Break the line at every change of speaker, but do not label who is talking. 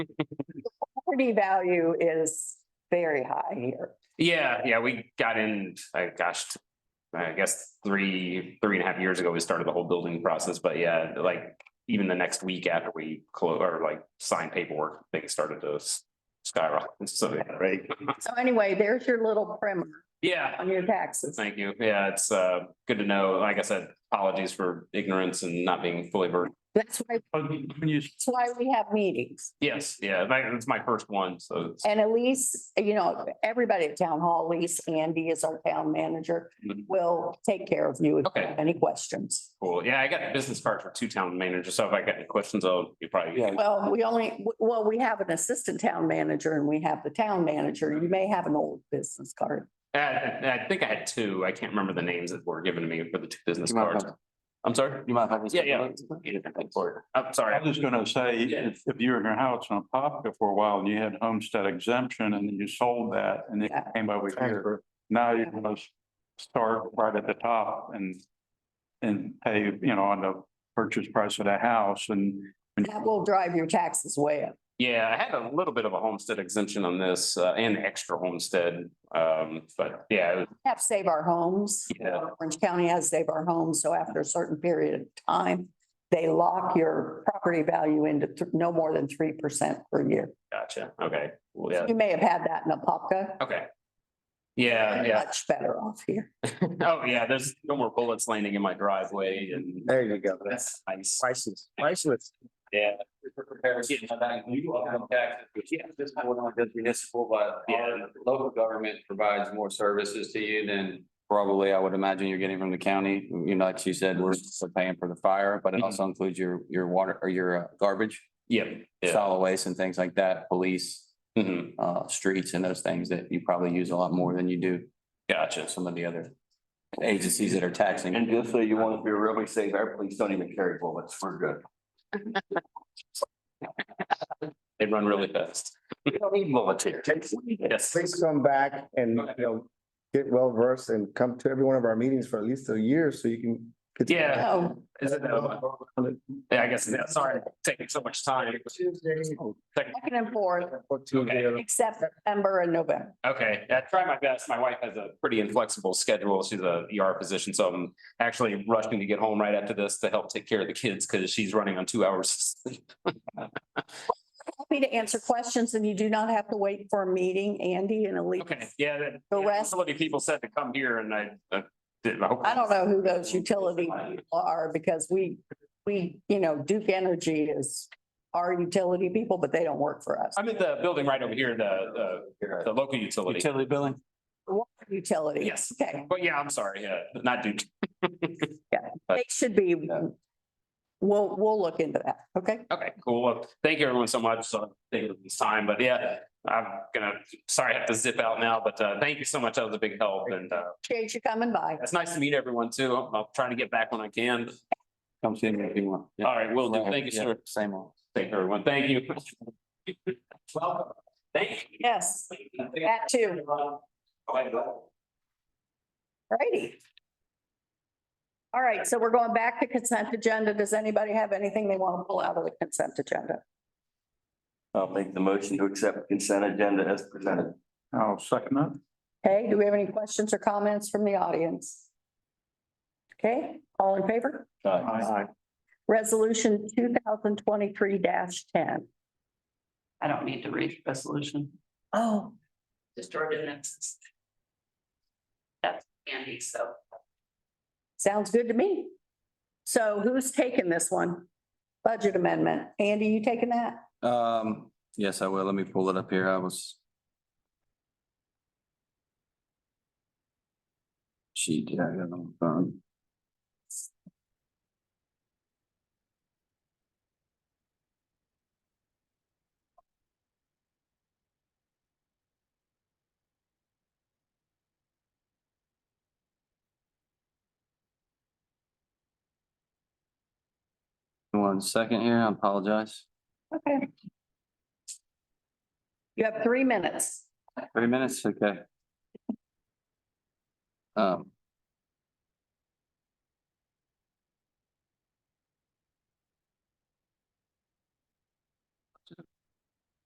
Property value is very high here.
Yeah, yeah, we got in, uh, gosh, t- I guess three, three and a half years ago, we started the whole building process, but yeah, like even the next week after we close or like sign paperwork, things started to s- skyrocket. So, yeah, right?
So anyway, there's your little primer
Yeah,
on your taxes.
thank you. Yeah, it's uh good to know. Like I said, apologies for ignorance and not being fully versed.
That's why,
When Oh, you,
that's why we have meetings.
Yes, yeah, that- it's my first one, so it's-
And Elise, you know, everybody at town hall, Elise, Andy is our town manager, will take care of you if you have any questions.
cool. Yeah, I got a business card for two town managers, so if I got any questions, I'll, you probably.
Yeah.
Well, we only, well, we have an assistant town manager and we have the town manager. You may have an old business card.
Uh, I I think I had two. I can't remember the names that were given to me for the two business
You might
cards.
have-
I'm sorry.
You might have.
Yeah, yeah. I'm sorry.
I was gonna say, if, if you were in your house in Apopka for a while and you had homestead exemption and then you sold that and it
Yeah.
came over here. Now you're gonna start right at the top and, and pay, you know, on the purchase price of the house and.
That will drive your taxes way up.
Yeah, I had a little bit of a homestead exemption on this uh, and extra homestead. Um, but yeah, it was-
We Have Save Our Homes.
Yeah.
Orange County has Save Our Homes, so after a certain period of time, they lock your property value into th- no more than three percent per year.
gotcha. Okay. Well, yeah.
You may have had that in Apopka.
Okay. Yeah, Uh, yeah.
Much better off here.
Oh, yeah, there's no more bullets landing in my driveway and
There you go. That's
that's nice.
priceless, priceless.
Yeah.
This one on this
Mm-hmm.
municipal, but
Yeah.
our local government provides more services to you than probably I would imagine you're getting from the county. You know, like you said, we're still paying for the fire, but it also
Mm-hmm.
includes your, your water or your uh, garbage,
Yeah. Yeah.
solid waste and things like that, police,
Mhm.
uh, streets and those things that you probably use a lot more than you do
Gotcha.
to some of the other agencies that are taxing.
And just so you want to be really safe, our police don't even carry bullets. We're good.
They run really fast.
We don't need bullets here.
Yes.
Please come back and, you know, get well versed and come to every one of our meetings for at least a year so you can. get to-
Yeah.
Oh,
Is it, uh, yeah, I guess, yeah, sorry, taking so much time.
Tuesday,
second and fourth,
or Tuesday.
except September and November.
Okay, I try my best. My wife has a pretty inflexible schedule. She's a ER physician, so I'm actually rushing to get home right after this to help take care of the kids because she's running on two hours. of sleep.
Happy to answer questions and you do not have to wait for a meeting, Andy and Elise.
Okay, yeah. that-
The
yeah,
rest-
So many people said to come here and I, I didn't. hope-
I don't know who those utility people are because we, we, you know, Duke Energy is our utility people, but they don't work for us.
I'm in the building right over here, the, the, the local utility.
Utility billing?
Water Utility.
Yes.
Okay,
But yeah, I'm sorry, yeah, not Duke.
they should be, we'll, we'll look into that, okay?
Okay, cool. Well, thank you everyone so much. So thank you for this time, but yeah, I'm gonna, sorry, I have to zip out now, but uh, thank you so much. That was a big help and uh,
Appreciate you coming by.
it's nice to meet everyone too. I'm I'm trying to get back when I can.
Come see me if you want.
All right, will do. Thank you,
Yeah,
sir.
Same old.
Thank you, everyone. Thank you. Welcome. Thank you.
Yes, that too. Righty. All right, so we're going back to consent agenda. Does anybody have anything they want to pull out of the consent agenda?
I'll make the motion to accept consent agenda as presented.
I'll second that.
Okay, do we have any questions or comments from the audience? Okay, all in favor?
Aye.
Resolution two thousand twenty-three ten.
I don't need to read the resolution,
Oh,
just ordinances. That's Andy, so
sounds good to me. So who's taking this one? Budget amendment. Andy, you taking that?
Um, yes, I will. Let me pull it up here. I was. She did, I got it on the phone. One second here, I apologize.
Okay. You have three minutes.
Three minutes, okay. Um.